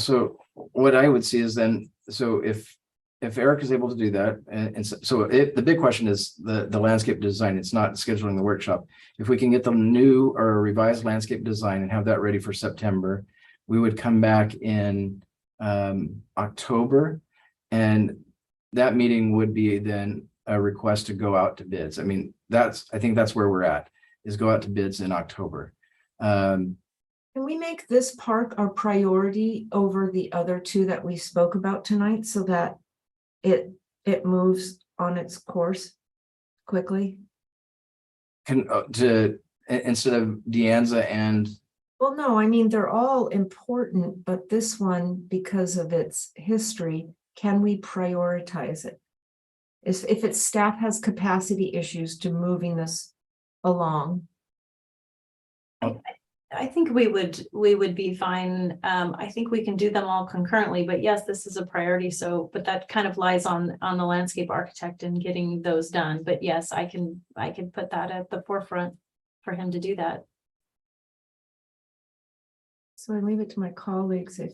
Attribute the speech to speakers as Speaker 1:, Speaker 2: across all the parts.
Speaker 1: So what I would see is then, so if, if Eric is able to do that, and, and so- so it, the big question is the, the landscape design, it's not scheduling the workshop. If we can get the new or revised landscape design and have that ready for September, we would come back in um, October. And that meeting would be then a request to go out to bids. I mean, that's, I think that's where we're at, is go out to bids in October. Um,
Speaker 2: Can we make this park our priority over the other two that we spoke about tonight so that it, it moves on its course quickly?
Speaker 1: can uh, to i- instead of Deanza and
Speaker 2: Well, no, I mean, they're all important, but this one, because of its history, can we prioritize it? If, if its staff has capacity issues to moving this along,
Speaker 3: I think we would, we would be fine. Um, I think we can do them all concurrently, but yes, this is a priority. So, but that kind of lies on, on the landscape architect and getting those done. But yes, I can, I can put that at the forefront for him to do that.
Speaker 2: so I leave it to my colleagues if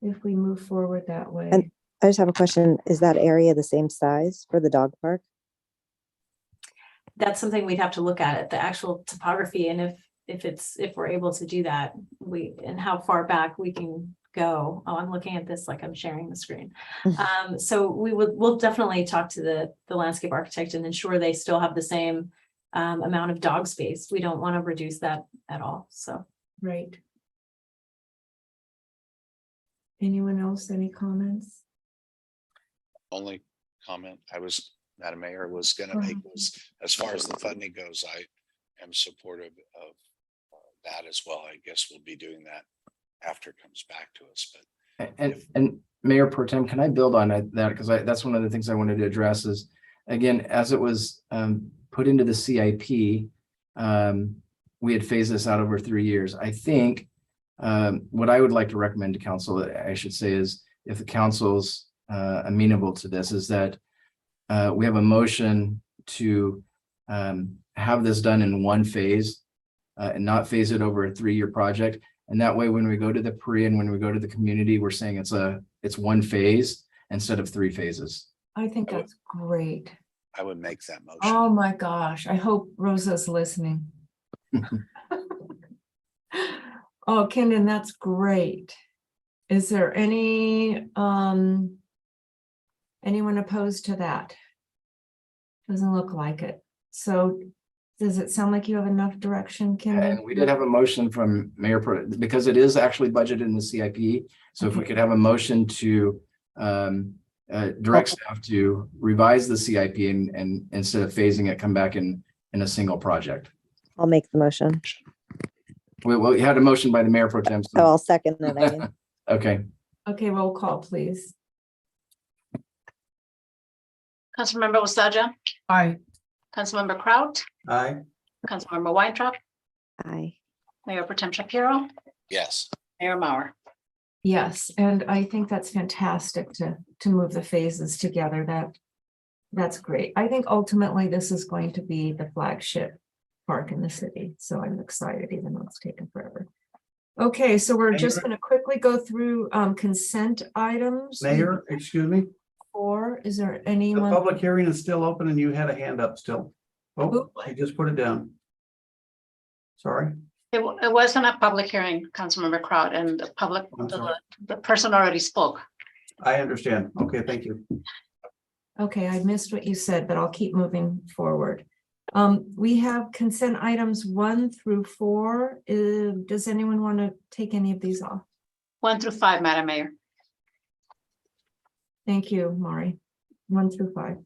Speaker 2: if we move forward that way.
Speaker 4: And- I just have a question. Is that area the same size for the dog park?
Speaker 3: That's something we'd have to look at, at the actual topography and if, if it's, if we're able to do that, we, and how far back we can go. Oh, I'm looking at this like I'm sharing the screen. Um, so we would, we'll definitely talk to the, the landscape architect and ensure they still have the same um, amount of dog space. We don't want to reduce that at all, so.
Speaker 2: Right. Anyone else, any comments?
Speaker 5: only comment I was, Madam Mayor, was gonna make was, as far as the funding goes, I am supportive of uh, that as well. I guess we'll be doing that after it comes back to us, but
Speaker 1: and and Mayor Pro Tem, can I build on that? Because I, that's one of the things I wanted to address is, again, as it was um put into the CIP, um, we had phased this out over three years. I think um, what I would like to recommend to council, I should say, is if the council's uh amenable to this, is that uh, we have a motion to um have this done in one phase uh, and not phase it over a three-year project. And that way, when we go to the pre and when we go to the community, we're saying it's a, it's one phase instead of three phases.
Speaker 2: I think
Speaker 5: I would-
Speaker 2: that's great.
Speaker 5: I would make that motion.
Speaker 2: Oh, my gosh, I hope Rosa's listening. Oh, Kenan, that's great. Is there any, um, anyone opposed to that? Doesn't look like it. So does it sound like you have enough direction, Kenan?
Speaker 1: And we did have a motion from Mayor Pro, because it is actually budgeted in the CIP. So if we could have a motion to um, uh, direct staff to revise the CIP and, and instead of phasing it, come back in, in a single project.
Speaker 4: I'll make the motion.
Speaker 1: We, well, you had a motion by the Mayor Pro Tem. so-
Speaker 4: Oh, I'll second that. I guess.
Speaker 1: Okay,
Speaker 2: Okay, roll call, please.
Speaker 6: Councilmember Wasaja,
Speaker 7: Aye.
Speaker 6: Councilmember Kraut,
Speaker 7: Aye.
Speaker 6: Councilmember Weintraub,
Speaker 4: Aye.
Speaker 6: Mayor Potem Shapiro,
Speaker 5: Yes,
Speaker 6: Mayor Mauer.
Speaker 2: Yes, and I think that's fantastic to, to move the phases together. That, that's great. I think ultimately this is going to be the flagship park in the city, so I'm excited even though it's taken forever. Okay, so we're just going to quickly go through um, consent items.
Speaker 7: Mayor, excuse me,
Speaker 2: Or is there
Speaker 7: the
Speaker 2: anyone?
Speaker 7: public hearing is still open and you had a hand up still. Oh,
Speaker 2: Oop.
Speaker 7: I just put it down. Sorry,
Speaker 6: It wa- it wasn't a public hearing, Councilmember Kraut, and the public,
Speaker 7: I'm sorry.
Speaker 6: the the person already spoke.
Speaker 7: I understand. Okay, thank you.
Speaker 2: Okay, I missed what you said, but I'll keep moving forward. Um, we have consent items one through four. Uh, Does anyone want to take any of these off?
Speaker 6: One through five, Madam Mayor.
Speaker 2: Thank you, Mari. One through five.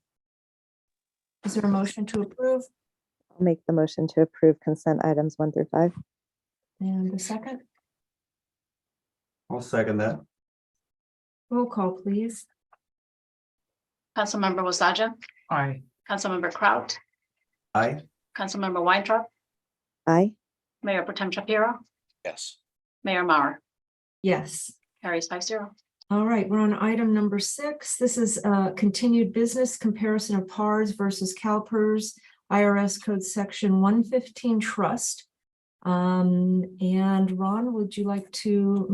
Speaker 2: Is there a motion to approve
Speaker 4: I'll make the motion to approve consent items one through five.
Speaker 2: and a second?
Speaker 7: I'll second that.
Speaker 2: Roll call, please.
Speaker 6: Councilmember Wasaja,
Speaker 7: Aye.
Speaker 6: Councilmember Kraut,
Speaker 7: Aye.
Speaker 6: Councilmember Weintraub,
Speaker 4: Aye.
Speaker 6: Mayor Potem Shapiro,
Speaker 5: yes,
Speaker 6: Mayor Mauer.
Speaker 2: Yes.
Speaker 6: Carries five zero.
Speaker 2: All right, we're on item number six. This is uh continued business comparison of PARs versus CalPERS, IRS Code Section one fifteen trust. Um, and Ron, would you like to